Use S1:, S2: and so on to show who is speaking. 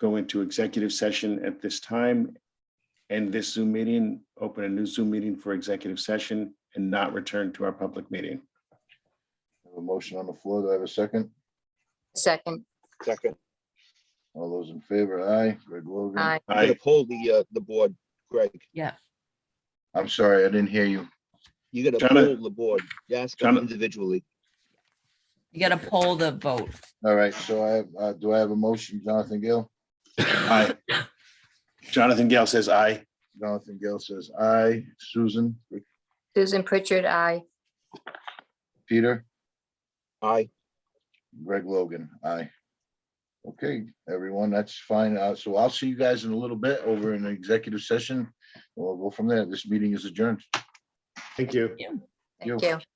S1: go into executive session at this time. End this Zoom meeting, open a new Zoom meeting for executive session and not return to our public meeting.
S2: Have A motion on the floor. Do I have a second?
S3: Second,
S4: Second,
S2: All those in favor? Aye. Greg Logan.
S3: aye.
S4: I'm gonna
S1: I,
S4: pull the, uh, the board, Greg.
S2: I'm sorry, I didn't hear you.
S4: You're gonna
S1: Donna.
S4: pull the board. You ask them
S1: Donna.
S4: individually.
S5: You gotta poll the vote.
S2: All right, so I have, uh, do I have a motion, Jonathan Gill?
S1: I. Jonathan Gale says aye.
S2: Jonathan Gill says aye. Susan,
S3: Susan Pritchard, aye.
S2: Peter,
S4: Aye.
S2: Greg Logan, aye. Okay, everyone, that's fine. Uh, so I'll see you guys in a little bit over in the executive session. We'll go from there. This meeting is adjourned.
S1: Thank you.
S2: You.
S3: Thank you.